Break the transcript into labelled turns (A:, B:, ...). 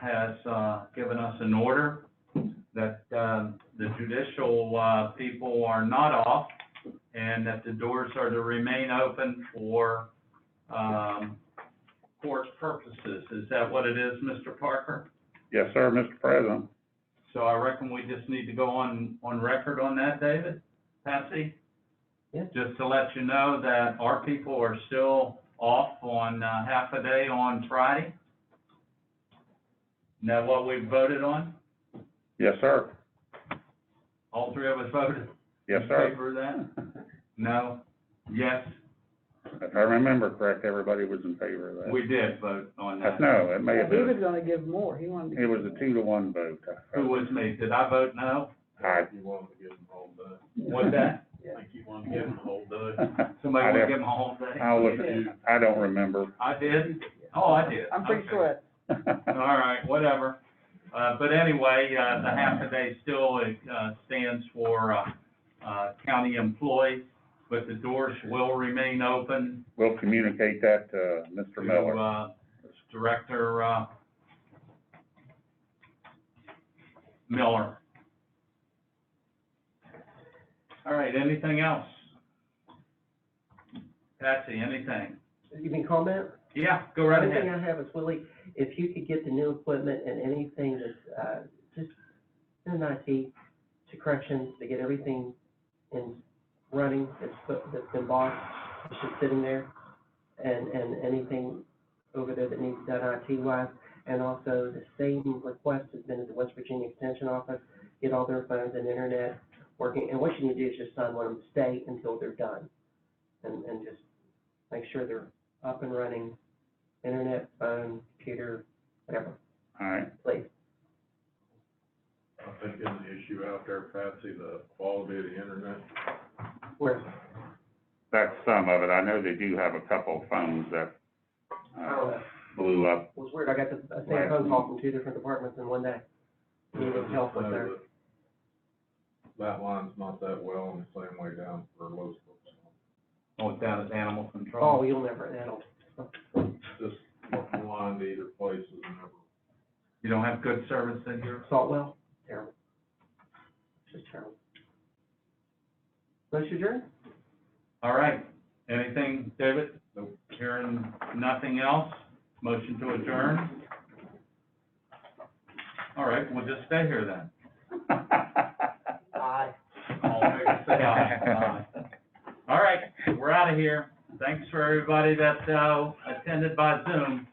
A: has uh, given us an order that uh, the judicial uh, people are not off and that the doors are to remain open for um, court purposes. Is that what it is, Mr. Parker?
B: Yes, sir, Mr. President.
A: So I reckon we just need to go on, on record on that, David? Patsy?
C: Yeah.
A: Just to let you know that our people are still off on uh, half a day on Friday. Now what we voted on?
B: Yes, sir.
A: All three of us voted
B: Yes,
A: in
B: sir.
A: favor of that? No? Yes,
B: If I remember correct, everybody was in favor of that.
A: we did vote on
B: I
A: that.
B: know, it may
C: Yeah,
B: have
C: He was
B: been,
C: gonna give more, he wanted. to
B: it was
C: give
B: a two to one vote.
A: Who was me? Did I vote no?
B: Aye.
D: You want to give them all day.
A: Was that?
D: I think you want to give them all day.
A: Somebody want
B: I'd
A: to
B: have-
A: give them a whole day?
B: I was, I don't remember.
A: I did? Oh, I did.
C: I'm pretty
A: Okay.
C: sure, it-
A: All right, whatever. Uh, but anyway, uh, the half a day still, uh, stands for, uh, uh, county employees, but the doors will remain open
B: We'll communicate that to Mr.
A: to,
B: Miller.
A: uh, Director, uh, Miller. All right, anything else? Patsy, anything?
E: You mean comment?
A: Yeah, go right
E: One thing
A: ahead.
E: I have is Willie, if you could get the new equipment and anything that's, uh, just send IT to corrections to get everything in running that's put, that's been bought, that's just sitting there. And, and anything over there that needs done IT wise. And also the same request has been at the West Virginia Extension Office, get all their phones and internet working. And what you need to do is just sign one of them, stay until they're done. And, and just make sure they're up and running internet, phone, computer, whatever,
B: All right,
E: please.
D: I think there's an issue out there, Patsy, the quality of the internet.
E: Where,
B: that's some of it. I know they do have a couple phones that,
E: I don't
A: Oh.
B: uh,
E: know,
B: blew up.
E: oh, it was weird, I got the, the same phone call from two different departments in one day. Needed help with their,
D: That line's not that well in the same way down for Los Feliz.
A: Oh, down at animal control.
E: oh, you'll never, that'll,
D: Just one line to either place is never.
A: You don't have good service in here?
E: Saltwell, terrible. Just terrible. Motion adjourned?
A: All right. Anything, David?
D: Nope.
A: Hearing nothing else? Motion to adjourn? All right, we'll just stay here then.
E: Aye.
A: All in favor, say aye. Aye. All right, we're out of here. Thanks for everybody that, uh, attended by Zoom.